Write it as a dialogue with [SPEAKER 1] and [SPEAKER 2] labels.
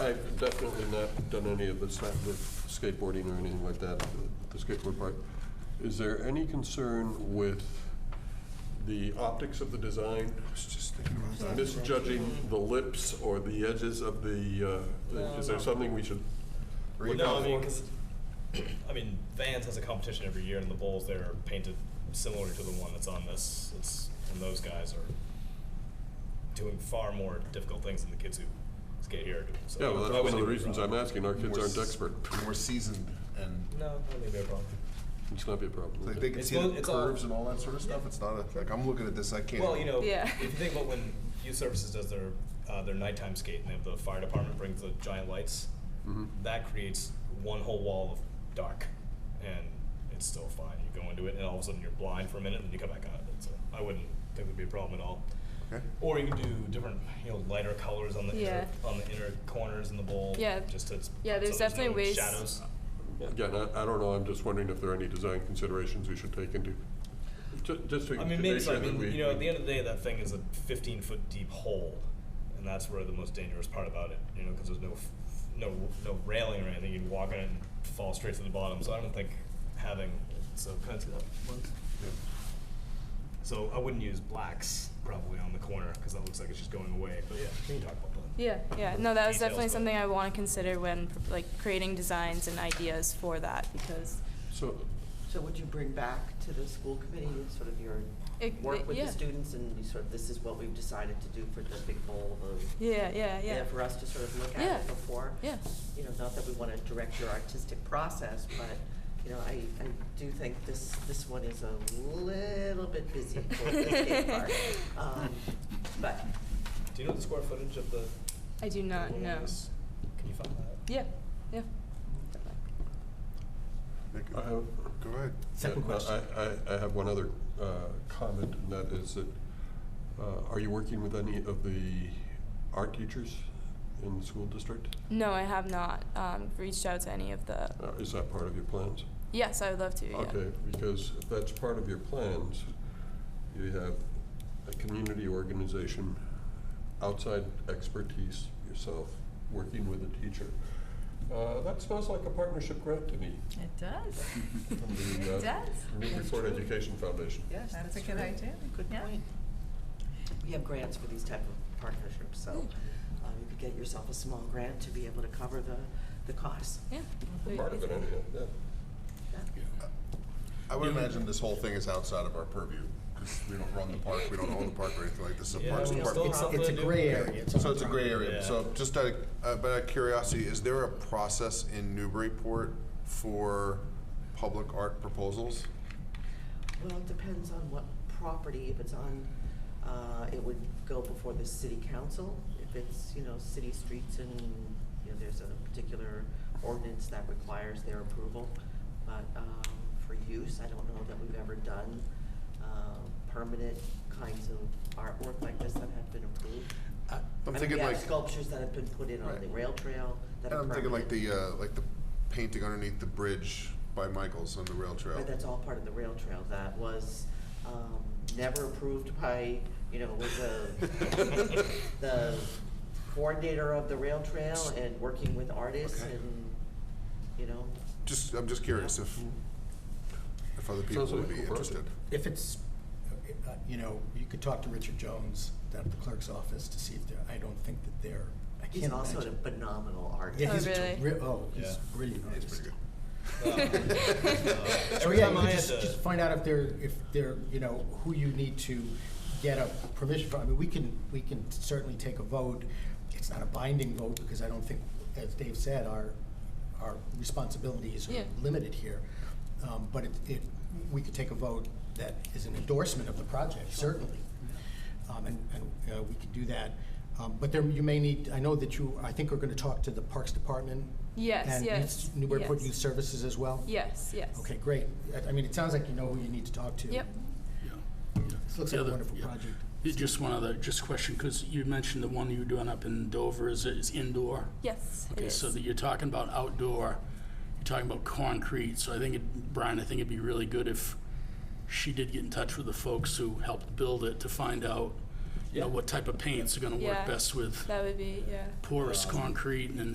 [SPEAKER 1] I've definitely not done any of this, not with skateboarding or anything like that, the skateboard part. Is there any concern with the optics of the design? Misjudging the lips or the edges of the, uh,
[SPEAKER 2] No,
[SPEAKER 1] is there
[SPEAKER 2] no.
[SPEAKER 1] something we should
[SPEAKER 3] Well,
[SPEAKER 1] look
[SPEAKER 3] no,
[SPEAKER 1] out
[SPEAKER 3] I mean,
[SPEAKER 1] for?
[SPEAKER 3] 'cause- I mean, Vans has a competition every year, and the bowls there are painted similar to the one that's on this. It's, and those guys are doing far more difficult things than the kids who skate here are doing. So
[SPEAKER 1] Yeah, well,
[SPEAKER 3] I
[SPEAKER 1] that's one of
[SPEAKER 3] wouldn't
[SPEAKER 1] the
[SPEAKER 3] be
[SPEAKER 1] reasons I'm
[SPEAKER 3] wrong.
[SPEAKER 1] asking, our kids
[SPEAKER 4] More
[SPEAKER 1] aren't
[SPEAKER 4] s-
[SPEAKER 1] expert.
[SPEAKER 4] More seasoned and
[SPEAKER 3] No, I don't think they're wrong.
[SPEAKER 1] It's not be a problem.
[SPEAKER 4] like they can
[SPEAKER 3] It's
[SPEAKER 4] see
[SPEAKER 3] all-
[SPEAKER 4] the
[SPEAKER 3] it's all-
[SPEAKER 4] curves and all that sort of stuff. It's not a, like I'm looking at this, I can't.
[SPEAKER 3] Well, you know,
[SPEAKER 2] Yeah.
[SPEAKER 3] if you think about when youth services does their uh, their nighttime skate, and they have the fire department brings the giant lights,
[SPEAKER 1] Mhm.
[SPEAKER 3] that creates one whole wall of dark, and it's still fine. You go into it, and all of a sudden you're blind for a minute, and then you come back out of it. So I wouldn't think there'd be a problem at all.
[SPEAKER 4] Okay.
[SPEAKER 3] Or you can do different, you know, lighter colors on the
[SPEAKER 2] Yeah.
[SPEAKER 3] inner, on the inner corners in the bowl.
[SPEAKER 2] Yeah.
[SPEAKER 3] Just to
[SPEAKER 2] Yeah, there's
[SPEAKER 3] so
[SPEAKER 2] definitely
[SPEAKER 3] no
[SPEAKER 2] ways-
[SPEAKER 3] Shadows.
[SPEAKER 1] Again, I, I don't know, I'm just wondering if there are any design considerations we should take into, ju- just to to
[SPEAKER 3] I mean, maybe
[SPEAKER 1] make
[SPEAKER 3] so.
[SPEAKER 1] sure
[SPEAKER 3] I
[SPEAKER 1] that
[SPEAKER 3] mean,
[SPEAKER 1] we.
[SPEAKER 3] you know, at the end of the day, that thing is a 15 foot deep hole, and that's where the most dangerous part about it, you know, because there's no, f- no, no railing or anything. You'd walk on it and fall straight to the bottom. So I don't think having so kind of so I wouldn't use blacks probably on the corner because that looks like it's just going away. But yeah, we can talk about that.
[SPEAKER 2] Yeah, yeah, no, that was
[SPEAKER 3] Details,
[SPEAKER 2] definitely
[SPEAKER 3] but-
[SPEAKER 2] something I want to consider when, like, creating designs and ideas for that, because
[SPEAKER 1] So,
[SPEAKER 5] So would you bring back to the school committee sort of your
[SPEAKER 2] It-
[SPEAKER 5] work with
[SPEAKER 2] yeah.
[SPEAKER 5] the students and you sort of, this is what we've decided to do for the big bowl of,
[SPEAKER 2] Yeah, yeah, yeah.
[SPEAKER 5] and for us to sort of look
[SPEAKER 2] Yeah.
[SPEAKER 5] at it before?
[SPEAKER 2] Yeah.
[SPEAKER 5] You know, not that we want to direct your artistic process, but, you know, I, I do think this, this one is a little bit busy for the skate park. Um, But,
[SPEAKER 3] Do you know the square footage of the?
[SPEAKER 2] I do not
[SPEAKER 3] building
[SPEAKER 2] know.
[SPEAKER 3] is? Can you find that?
[SPEAKER 2] Yeah, yeah.
[SPEAKER 4] Nick,
[SPEAKER 1] I have.
[SPEAKER 4] Go ahead.
[SPEAKER 1] Second question. uh, I, I have one other uh, comment, and that is that, uh, are you working with any of the art teachers in the school district?
[SPEAKER 2] No, I have not, um, reached out to any of the,
[SPEAKER 1] Uh, Is that part of your plans?
[SPEAKER 2] yes, I would love to, yeah.
[SPEAKER 1] Okay, because if that's part of your plans, you have a community organization, outside expertise yourself, working with a teacher. Uh, That smells like a partnership grant to me
[SPEAKER 6] It does.
[SPEAKER 1] from the
[SPEAKER 6] It
[SPEAKER 1] uh,
[SPEAKER 6] does.
[SPEAKER 1] Newburyport Education Foundation.
[SPEAKER 5] yes,
[SPEAKER 6] That's
[SPEAKER 5] that's
[SPEAKER 6] a
[SPEAKER 5] true.
[SPEAKER 6] good idea.
[SPEAKER 5] Good
[SPEAKER 6] Yeah.
[SPEAKER 5] point. We have grants for these type of partnerships, so uh, you could get yourself a small grant to be able to cover the, the cost.
[SPEAKER 2] Yeah.
[SPEAKER 1] Part of it anyhow, yeah.
[SPEAKER 5] Yeah.
[SPEAKER 4] I would imagine this whole thing is outside of our purview because we don't run the park, we don't own the park or anything like this. It's a
[SPEAKER 3] Yeah,
[SPEAKER 4] parks
[SPEAKER 3] we still
[SPEAKER 4] department.
[SPEAKER 3] have something
[SPEAKER 7] It's a
[SPEAKER 3] to do.
[SPEAKER 7] gray area.
[SPEAKER 4] So it's a gray area.
[SPEAKER 3] Yeah.
[SPEAKER 4] So just out of, uh, but out of curiosity, is there a process in Newburyport for public art proposals?
[SPEAKER 5] Well, it depends on what property, if it's on, uh, it would go before the city council. If it's, you know, city streets and, you know, there's a particular ordinance that requires their approval. But, um, for use, I don't know that we've ever done, uh, permanent kinds of artwork like this that have been approved.
[SPEAKER 4] I'm
[SPEAKER 5] Uh, I mean,
[SPEAKER 4] thinking
[SPEAKER 5] we have
[SPEAKER 4] like.
[SPEAKER 5] Sculptures that have been put in on
[SPEAKER 4] Right.
[SPEAKER 5] the rail trail that
[SPEAKER 4] And
[SPEAKER 5] are
[SPEAKER 4] I'm thinking like
[SPEAKER 5] permanent.
[SPEAKER 4] the, uh, like the painting underneath the bridge by Michael's on the rail trail.
[SPEAKER 5] But that's all part of the rail trail that was um, never approved by, you know, was the, the coordinator of the rail trail and working with artists
[SPEAKER 4] Okay.
[SPEAKER 5] and, you know,
[SPEAKER 4] Just, I'm just curious if, if other people
[SPEAKER 1] Sounds like
[SPEAKER 4] would be
[SPEAKER 1] a cool project.
[SPEAKER 4] interested.
[SPEAKER 7] If it's, uh, you know, you could talk to Richard Jones down at the clerk's office to see if they're, I don't think that they're, I
[SPEAKER 5] he's
[SPEAKER 7] can't
[SPEAKER 5] also
[SPEAKER 7] imagine.
[SPEAKER 5] a phenomenal artist.
[SPEAKER 7] Yeah,
[SPEAKER 2] Oh,
[SPEAKER 7] he's a
[SPEAKER 2] really?
[SPEAKER 7] terri- Oh, he's
[SPEAKER 3] Yeah.
[SPEAKER 7] brilliant
[SPEAKER 4] It's
[SPEAKER 7] artist.
[SPEAKER 4] pretty good.
[SPEAKER 7] So
[SPEAKER 3] Every
[SPEAKER 7] Oh, yeah,
[SPEAKER 3] time
[SPEAKER 7] you
[SPEAKER 3] I
[SPEAKER 7] could
[SPEAKER 3] had
[SPEAKER 7] just,
[SPEAKER 3] to-
[SPEAKER 7] just find out if they're, if they're, you know, who you need to get a permission from. I mean, we can, we can certainly take a vote. It's not a binding vote because I don't think, as Dave said, our, our responsibilities
[SPEAKER 2] Yeah.
[SPEAKER 7] are limited here. Um, but it, it, we could take a vote that is an endorsement of the project, certainly. Um, and, and, uh, we could do that. Um, but there, you may need, I know that you, I think we are gonna talk to the Parks Department.
[SPEAKER 2] Yes,
[SPEAKER 7] and
[SPEAKER 2] yes,
[SPEAKER 7] Youth- Newburyport
[SPEAKER 2] yes.
[SPEAKER 7] Youth Services as well?
[SPEAKER 2] Yes, yes.
[SPEAKER 7] Okay, great. I- I mean, it sounds like you know who you need to talk to.
[SPEAKER 2] Yep.
[SPEAKER 7] This looks
[SPEAKER 8] The
[SPEAKER 7] like a
[SPEAKER 8] other-
[SPEAKER 7] wonderful
[SPEAKER 8] yeah.
[SPEAKER 7] project.
[SPEAKER 8] Yeah, Just one other, just question, because you mentioned the one you were doing up in Dover is, is indoor.
[SPEAKER 2] Yes, it
[SPEAKER 8] Okay,
[SPEAKER 2] is.
[SPEAKER 8] so that you're talking about outdoor, you're talking about concrete, so I think, it- Brian, I think it'd be really good if she did get in touch with the folks who helped build it to find out, you know, what type of paints are gonna
[SPEAKER 2] Yeah.
[SPEAKER 8] work best with
[SPEAKER 2] That would be, yeah.
[SPEAKER 8] porous concrete and